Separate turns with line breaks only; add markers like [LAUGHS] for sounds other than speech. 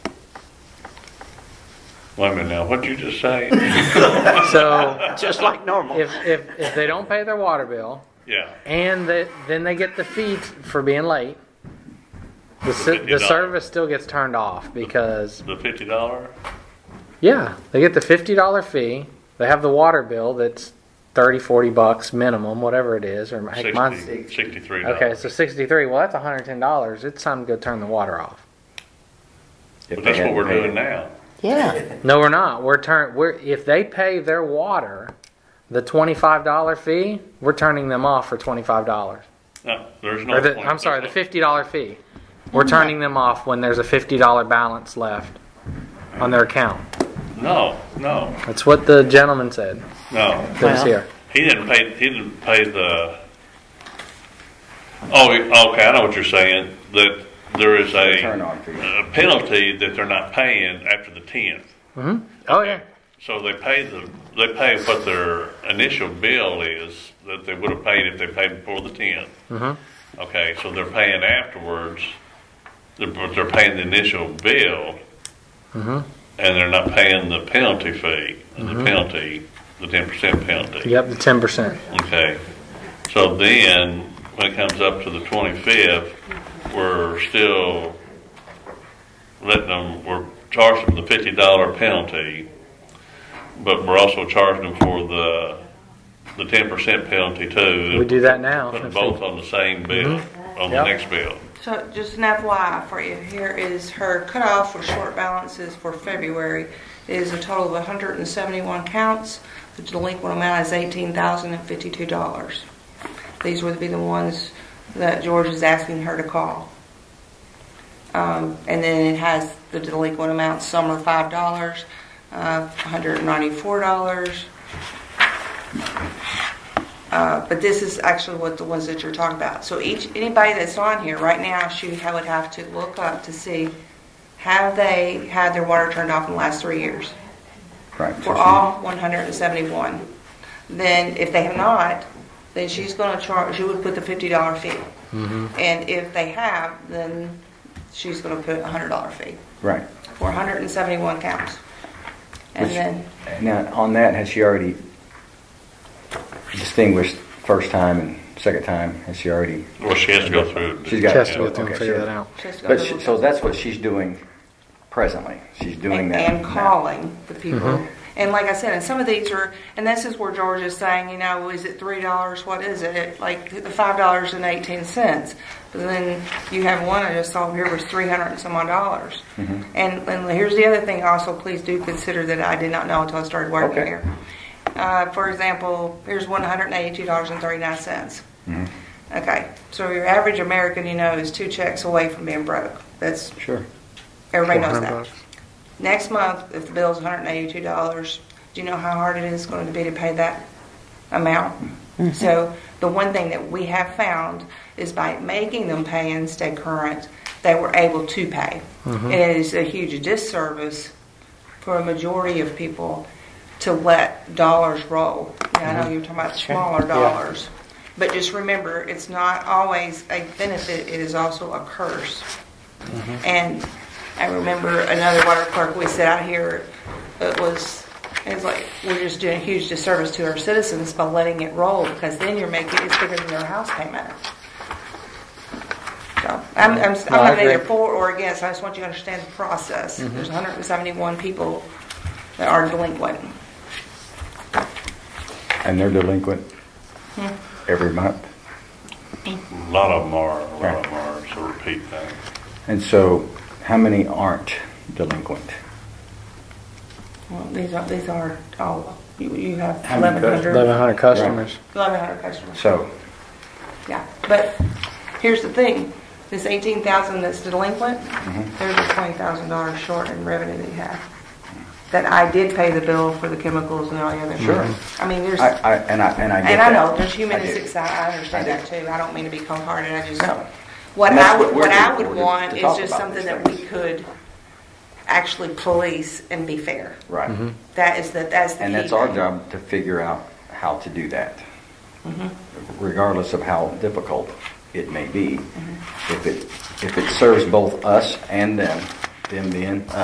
Wait a minute now, what'd you just say?
[LAUGHS] So
just like normal.
if, if, if they don't pay their water bill
Yeah.
and that then they get the fee for being late, the, si- the
$50.
service still gets turned off because,
The fifty dollar?
yeah, they get the $50 fee. They have the water bill that's 30, 40 bucks minimum, whatever it is, or heck, mine's
Sixty, sixty-three
Okay,
dollars.
so sixty-three. Well, that's one hundred ten dollars. It's time to go turn the water off.
But that's what we're doing now.
Yeah,
No, we're not. We're turn. We're if they pay their water, the twenty-five dollar fee, we're turning them off for twenty-five dollars.
No, there's no
Or the,
point.
I'm sorry, the fifty dollar fee. We're turning them off when there's a fifty dollar balance left on their account.
No, no,
That's what the gentleman said.
no.
That was
Well.
here.
He didn't pay, he didn't pay the, oh, he- okay, I know what you're saying, that there is
Turn
a
on fee.
a penalty that they're not paying after the tenth.
Oh yeah.
So they pay the, they pay what their initial bill is that they would have paid if they paid before the 10th
Mm-hmm.
Okay, so they're paying afterwards, they're, but they're paying the initial bill.
Mm-hmm.
And they're not paying the penalty fee, and the penalty, the ten percent penalty.
Yep, the ten percent.
Okay, so then, when it comes up to the twenty-fifth, we're still letting them, we're charging them the fifty dollar penalty, but we're also charging them for the, the ten percent penalty too.
We do that now.
Putting both on the same bill, on the
Yep.
next bill.
So just an FYI for you, here is her cutoff for short balances for February. It is a total of 171 counts. The delinquent amount is $18,052. These would be the ones that George is asking her to call. Um, And then it has the delinquent amounts, some are $5, uh, $194. Uh, But this is actually what the ones that you're talking about. So each, anybody that's on here right now, she ha- would have to look up to see, have they had their water turned off in the last three years?
Right.
For all 171. Then if they have not, then she's going to charge, she would put the $50 fee.
Mm-hmm.
And if they have, then she's going to put a $100 fee
Right.
for 171 counts. And
Which-
then,
Now, on that, has she already distinguished first time and second time? Has she already?
Well, she has to go through.
She's got
She has to go
okay,
through and
she
figure
has-
that out.
she has to go
But
to
she,
the-
so that's what she's doing presently. She's doing
and,
that. Mm-hmm.
and
now.
calling the people. And like I said, and some of these are, and this is where George is saying, you know, is it three dollars? What is it? It- Like the five dollars and eighteen cents. But then you have one I just saw here was three hundred and some odd dollars.
Mm-hmm.
And, and here's the other thing. Also, please do consider that I did not know until I started working
Okay.
here. Uh, for example, here's one hundred eighty-two dollars and thirty-nine cents.
Mm-hmm.
Okay, so your average American, you know, is two checks away from being broke. That's
Sure.
everybody knows
400
that.
bucks.
Next month, if the bill's $182, do you know how hard it is going to be to pay that amount? So the one thing that we have found is by making them pay and stay current, they were able to pay. And it is a huge disservice for a majority of people to let dollars roll. Now, I know you're talking about smaller dollars, but just remember, it's not always a benefit, it is also a curse. And I remember another water clerk we set out here, it was, it was like, we're just doing a huge disservice to our citizens by letting it roll, because then you're making, it's bigger than your house payment. So, I'm, I'm, I'm
No, I
not either
agree. Mm-hmm.
for or against, I just want you to understand the process. There's 171 people that are delinquent.
And they're delinquent
Hmm.
every month.
A lot of them are, a lot of them are, so repeat things.
And so, how many aren't delinquent?
Well, these are, these are, all you, you have
How many
1,100,
Eleven hundred customers.
1,100 customers.
So,
Yeah, but here's the thing, this eighteen thousand that's delinquent,
Mm-hmm.
there's a twenty thousand dollars short in revenue that you have. That I did pay the bill for the chemicals and all the other.
Sure.
I mean, there's,
I, I and I and I get
and I
that.
know, there's humanistic
do.
side, I understand
I
that too, I don't mean to be cold-hearted, I just.
No.
What
And that's
I would,
what we're
what I
here for,
would
to- to
want is
talk
just
about
something
these
that we
things.
could actually police and be fair.
Right.
That is the, that's the key.
And that's our
thing.
job to figure out how to do that, regardless of how difficult it may be. If it, if it serves both us and them, them being